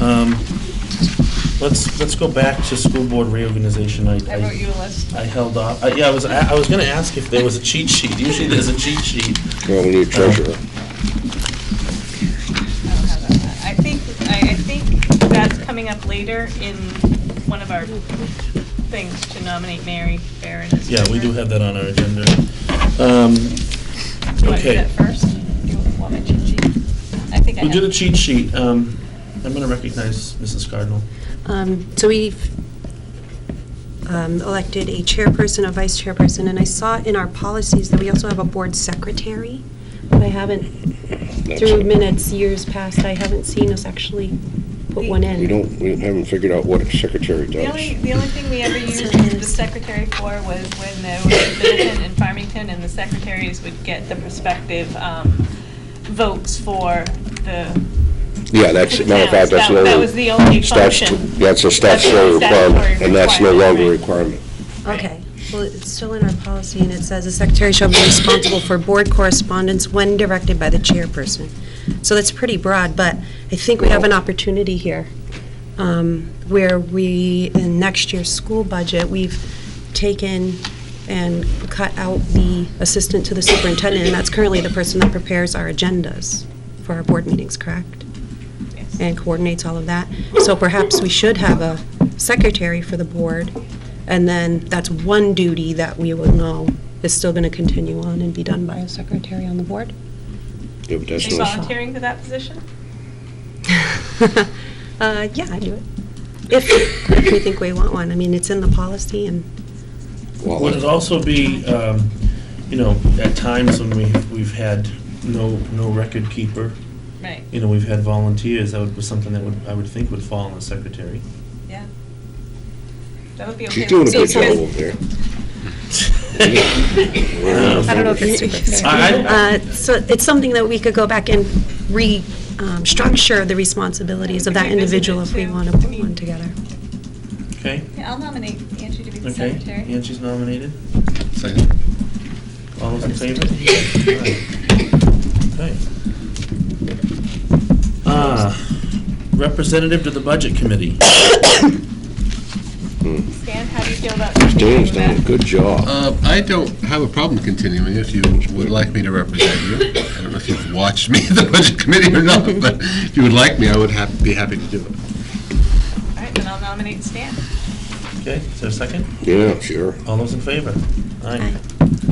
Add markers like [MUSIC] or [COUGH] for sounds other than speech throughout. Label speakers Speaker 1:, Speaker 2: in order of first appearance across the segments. Speaker 1: Um, Let's, let's go back to school board reorganization. I-
Speaker 2: I wrote you a list.
Speaker 1: I held off, I- yeah, I was, I I was gonna ask if there was a cheat sheet. Usually there's a cheat sheet.
Speaker 3: Well, we need
Speaker 4: Uh,
Speaker 3: treasurer.
Speaker 2: I don't have that. I think, I, I think that's coming up later in one of our things to nominate Mary Barron as
Speaker 1: Yeah, we do
Speaker 2: treasurer.
Speaker 1: have that on our agenda. Um,
Speaker 2: Do you want to do
Speaker 1: Okay.
Speaker 2: that first? Do you want my cheat sheet? I think I
Speaker 1: We
Speaker 2: have.
Speaker 1: did a cheat sheet. Um, I'm gonna recognize Mrs. Cardinal.
Speaker 4: Um, So we've um, elected a chairperson, a vice chairperson, and I saw in our policies that we also have a board secretary, but I haven't, through minutes, years past, I haven't seen us actually put one in.
Speaker 3: We don't, we haven't figured out what a secretary
Speaker 2: The only,
Speaker 3: does.
Speaker 2: the only thing we ever used the secretary for was when there was a Littleton and Farmington, and the secretaries would get the prospective um, votes for the.
Speaker 3: Yeah, that's, matter of fact, that's
Speaker 2: That-
Speaker 3: the only.
Speaker 2: that was the only
Speaker 3: statu-
Speaker 2: function. That's
Speaker 3: That's a
Speaker 2: the
Speaker 3: statutory
Speaker 2: only
Speaker 3: requirement,
Speaker 2: statutory
Speaker 3: and that's no
Speaker 2: requirement,
Speaker 3: longer a
Speaker 2: right.
Speaker 3: requirement.
Speaker 4: Okay, well, it's still in our policy, and it says the secretary shall be responsible for board correspondence when directed by the chairperson. So that's pretty broad, but I think we have an opportunity here, um, where we, in next year's school budget, we've taken and cut out the assistant to the superintendent, and that's currently the person that prepares our agendas for our board meetings, correct?
Speaker 2: Yes.
Speaker 4: and coordinates all of that. So perhaps we should have a secretary for the board, and then that's one duty that we will know is still going to continue on and be done by a secretary on the board.
Speaker 3: Yeah, but
Speaker 2: Are
Speaker 3: that's
Speaker 2: you
Speaker 3: not,
Speaker 2: volunteering for that position?
Speaker 4: [LAUGHS] Uh, Yeah, I do it. If, if we think we want one. I mean, it's in the policy, and
Speaker 3: well,
Speaker 1: Would it also be, um, you know, at times when we, we've had no, no record keeper,
Speaker 2: Right,
Speaker 1: you know, we've had volunteers, that would- was something that would, I would think would fall on the secretary.
Speaker 2: yeah. That would be okay.
Speaker 3: she's doing a good
Speaker 2: with
Speaker 3: job
Speaker 2: me.
Speaker 3: over there.
Speaker 1: [LAUGHS]
Speaker 4: I don't know if [LAUGHS] it's
Speaker 1: I-
Speaker 4: Uh, So it's something that we could go back and restructure the responsibilities of that individual if we want to put one together.
Speaker 1: Okay,
Speaker 2: Yeah, I'll nominate Angie to be the
Speaker 1: okay.
Speaker 2: secretary.
Speaker 1: Angie's nominated.
Speaker 5: Second.
Speaker 1: All those in favor?
Speaker 2: [LAUGHS]
Speaker 1: Alright. Okay. Ah, Representative to the Budget Committee.
Speaker 2: Stan, how do you feel about?
Speaker 3: Dan's
Speaker 2: continuing
Speaker 3: done a
Speaker 2: that?
Speaker 3: good job.
Speaker 5: Uh, I don't have a problem continuing if you would like me to represent you. I don't know if you've watched me in the budget committee or not, but if you would like me, I would hap- be happy to do it.
Speaker 2: All right, then I'll nominate Stan.
Speaker 1: Okay, is there a second?
Speaker 3: Yeah, sure.
Speaker 1: All those in favor? Aye.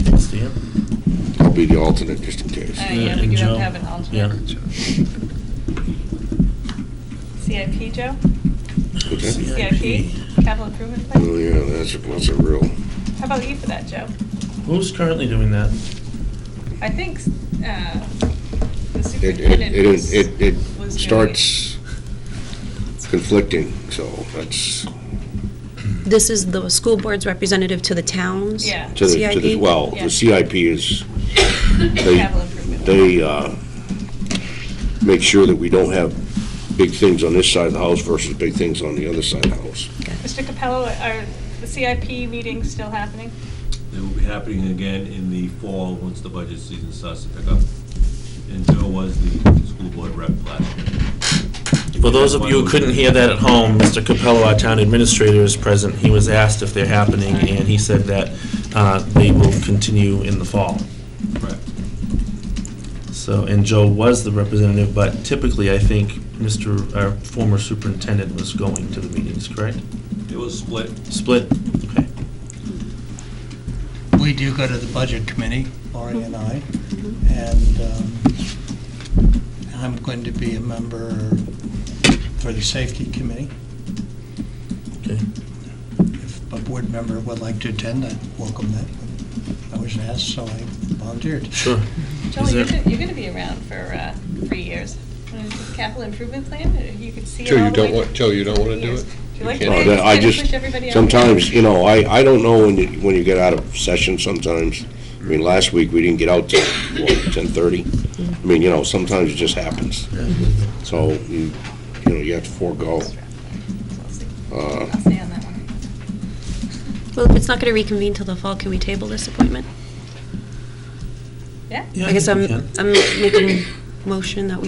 Speaker 1: Thanks, Dan.
Speaker 3: I'll be the alternate, just in case.
Speaker 2: Uh,
Speaker 1: Yeah,
Speaker 2: yeah,
Speaker 1: and
Speaker 2: we do have
Speaker 1: Joe.
Speaker 2: to have an alternate. CIP, Joe?
Speaker 3: Okay.
Speaker 2: CIP, capital improvement
Speaker 3: Oh,
Speaker 2: plan?
Speaker 3: yeah, that's, a- that's a real,
Speaker 2: How about you for that, Joe?
Speaker 1: Who's currently doing that?
Speaker 2: I think, uh, the
Speaker 3: it, it,
Speaker 2: superintendent was.
Speaker 3: it, it- it
Speaker 2: was doing it.
Speaker 3: starts conflicting, so that's,
Speaker 4: This is the school board's representative to the towns?
Speaker 2: Yeah.
Speaker 3: to the, to the,
Speaker 4: CIP?
Speaker 3: well,
Speaker 2: Yeah.
Speaker 3: the CIP is, they,
Speaker 2: Capital improvement.
Speaker 3: they uh, make sure that we don't have big things on this side of the house versus big things on the other side of the house.
Speaker 2: Mr. Capello, are the CIP meetings still happening?
Speaker 6: It will be happening again in the fall, once the budget season starts to pick up. And Joe was the school board rep last year.
Speaker 1: For those of you who couldn't hear that at home, Mr. Capello, our town administrator, is present. He was asked if they're happening, and he said that uh, they will continue in the fall.
Speaker 6: Correct.
Speaker 1: So, and Joe was the representative, but typically, I think Mr., our former superintendent was going to the meetings, correct?
Speaker 6: It was split.
Speaker 1: Split? Okay.
Speaker 7: We do go to the Budget Committee, Laurie and I, and um, I'm going to be a member for the Safety Committee.
Speaker 1: Okay.
Speaker 7: If a board member would like to attend, I welcome that. I was asked, so I volunteered.
Speaker 1: Sure.
Speaker 2: Joe,
Speaker 1: Is
Speaker 2: you're
Speaker 1: there-
Speaker 2: gonna, you're gonna be around for, uh, three years. Wanna do the Capital improvement plan, Or you could see it
Speaker 5: Joe,
Speaker 2: all
Speaker 5: you
Speaker 2: the way
Speaker 5: don't want, Joe, you don't want to do it?
Speaker 2: Do you like
Speaker 5: You
Speaker 2: the
Speaker 5: can't.
Speaker 2: way
Speaker 3: Oh, that- I
Speaker 2: kinda
Speaker 3: just,
Speaker 2: push everybody out?
Speaker 3: sometimes, you know, I, I don't know when you, when you get out of session sometimes. I mean, last week, we didn't get out till, what, ten-thirty? I mean, you know, sometimes it just happens. So, you, you know, you have to forego.
Speaker 2: I'll stay-
Speaker 3: Uh,
Speaker 2: I'll stay on that one.
Speaker 4: Well, if it's not going to reconvene till the fall, can we table this appointment?
Speaker 2: Yeah?
Speaker 1: Yeah,
Speaker 4: I guess
Speaker 1: think
Speaker 4: I'm,
Speaker 1: we can.
Speaker 4: I'm making motion that we